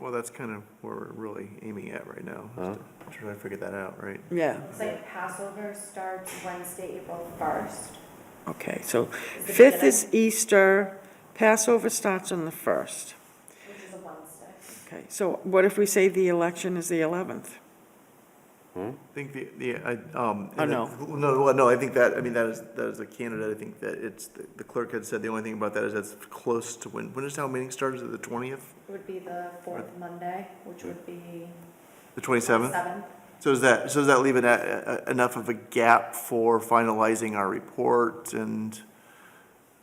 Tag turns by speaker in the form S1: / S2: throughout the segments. S1: Well, that's kind of where we're really aiming at right now, is to try to figure that out, right?
S2: Yeah,
S3: It's like Passover starts Wednesday, April 1st.
S2: okay, so
S3: Is it
S2: 5th
S3: gonna-
S2: is Easter, Passover starts on the 1st.
S3: Which is a Wednesday.
S2: Okay, so what if we say the election is the 11th?
S1: I think the, the, I, um.
S2: Oh,
S1: and
S2: no.
S1: that- No, well, no, I think that, I mean, that is, that is a candidate, I think that it's, the clerk had said the only thing about that is that's close to when, when is town meeting starts, is it the twentieth,
S3: It would be the fourth Monday, which would be
S1: the
S3: the
S1: twenty-seventh?
S3: 7th.
S1: So does that, so does that leave it at, uh, enough of a gap for finalizing our report and,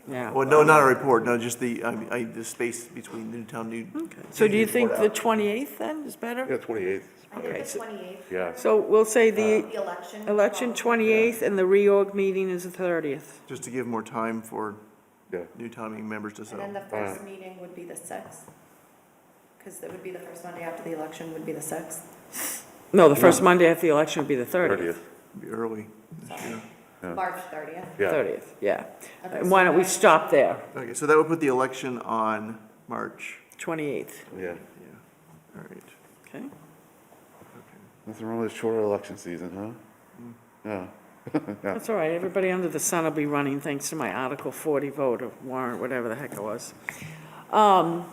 S2: Yeah.
S1: well, no, not our report, no, just the, I, mean, I, the space between Newtown, New.
S2: Okay. So do you think the
S1: Report out.
S2: 28th then is better?
S4: Yeah, 28th,
S3: I
S2: Okay,
S3: think the
S2: so-
S3: 28th.
S4: yeah.
S2: So we'll say the
S3: The
S1: Uh,
S3: election.
S2: election 28th and the reorg meeting is the 30th.
S1: Just to give more time for
S4: Yeah.
S1: new timing members to
S3: And
S1: settle.
S3: then the first meeting would be the 6th. Because that would be the first Monday after the election would be the 6th.
S2: No, the first Monday after the election would be the 30th.
S4: 30th,
S1: Be early this year.
S4: Yeah.
S3: March 30th.
S4: yeah.
S2: 30th, yeah.
S3: Okay,
S2: And why
S3: so
S2: don't we
S3: that-
S2: stop there,
S1: Okay, so that would put the election on March,
S2: 28th,
S4: Yeah.
S1: yeah, all right.
S2: okay?
S4: Nothing wrong with a shorter election season, huh? Yeah. Yeah.
S2: That's all right, everybody under the sun will be running thanks to my Article 40 vote or warrant, whatever the heck it was. Um,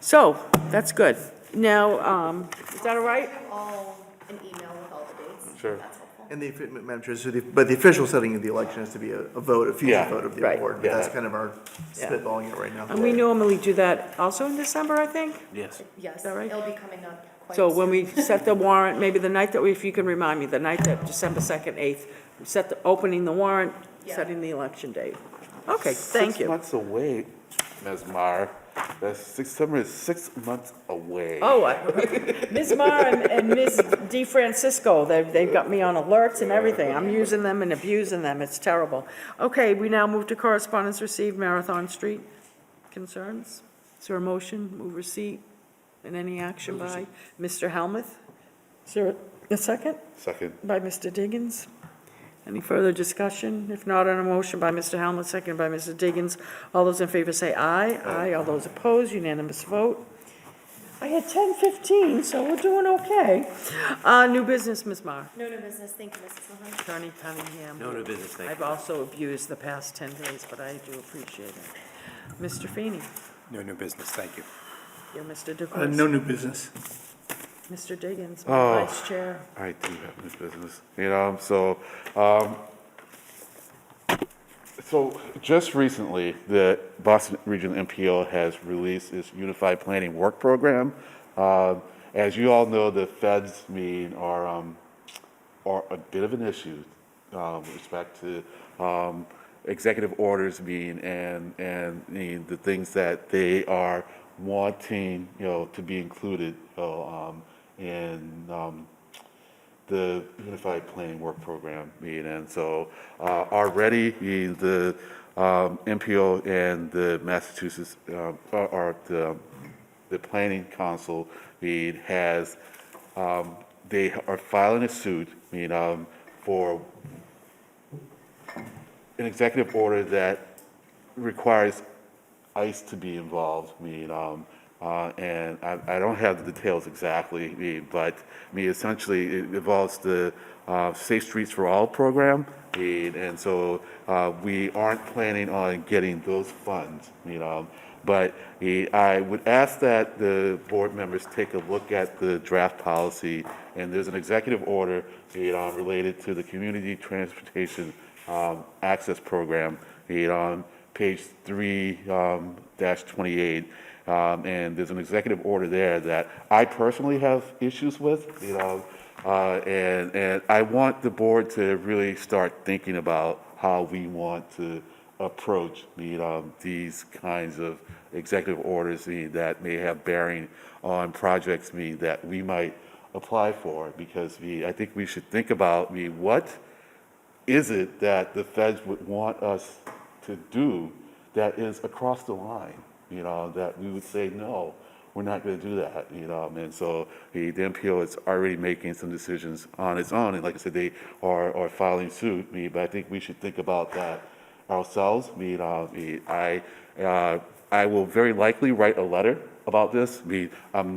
S2: So, that's good. Now, um, is that all right?
S3: I'll send you all an email with all the dates. if
S4: Sure.
S3: That's helpful.
S1: And the, Madam Chair, so the, but the official setting of the election has to be a, a vote, a future
S4: Yeah.
S1: vote of the
S2: Right.
S1: board, but
S4: Yeah.
S1: that's kind of our
S2: Yeah.
S1: spitballing it right now.
S2: And we normally do that also in December, I think?
S5: Yes.
S3: Yes,
S2: that right?
S3: it'll be coming up quite
S2: So
S3: soon.
S2: when we set the warrant, maybe the night that, we if you can remind me, the night that, December 2nd, 8th, we set the, opening the warrant,
S3: Yeah.
S2: setting the election date. Okay, thank
S4: Six
S2: you.
S4: months away, Ms. Mar. That's six, summer is six months away.
S2: Oh, I- Ms. Mar and- and Ms. Di Francisco, they've, they've got me on alerts and everything. I'm using them and abusing them, it's terrible. Okay, we now move to correspondence received, Marathon Street concerns. Is there a motion, move receipt, and any action by Mr. Helmuth? Is there a- a second?
S4: Second,
S2: by Mr. Diggins. Any further discussion? If not, on a motion by Mr. Helmut, seconded by Mr. Diggins. All those in favor say aye. Aye. All those opposed, unanimous vote. I had 10:15, so we're doing okay. Uh, New business, Ms. Mar.
S3: No new business, thank you, Mrs. Mahon.
S2: Attorney Cunningham.
S5: No new business, thank
S2: I've also abused the past 10 days, but I do appreciate it. Mr. Feeney,
S5: No new business, thank you.
S2: you're Mr. DeCoursey.
S6: Uh, No new business.
S2: Mr. Diggins,
S4: Oh.
S2: my vice chair.
S4: I do have this business, you know, so, um, so just recently, the Boston Regional MPO has released its Unified Planning Work Program. Um, As you all know, the feds mean are, um, are a bit of an issue um, with respect to um, executive orders being and and the, the things that they are wanting you know to be included you know, um, in um, the Unified Planning Work Program meeting. And so uh, already the- the um, MPO and the Massachusetts, uh, or- or the, the Planning Council meeting has, um, they are filing a suit, I mean, um, for an executive order that requires ICE to be involved, I mean, um, uh, and I, I don't have the details exactly, I mean, but, I mean, essentially, it involves the, uh, Safe Streets for All program, I mean, and so, uh, we aren't planning on getting those funds, you know, but eh, I would ask that the board members take a look at the draft policy, and there's an executive order, you know, related to the Community Transportation um, Access Program, um, you know, on page three um, dash 28. um, And there's an executive order there that I personally have issues with, you know, uh, and, and I want the board to really start thinking about how we want to approach, you know, these kinds of executive orders you know, that may have bearing on projects, you know, that we might apply for, because we, I think we should think about, you know, what is it that the feds would want us to do that is across the line? You know, that we would say, no, we're not going to do that, you know? And so the the MPO is already making some decisions on its own. And like I said, they are, are filing suit, me, but I think we should think about that ourselves. I mean, uh, I, uh, I will very likely write a letter about this. I mean, I'm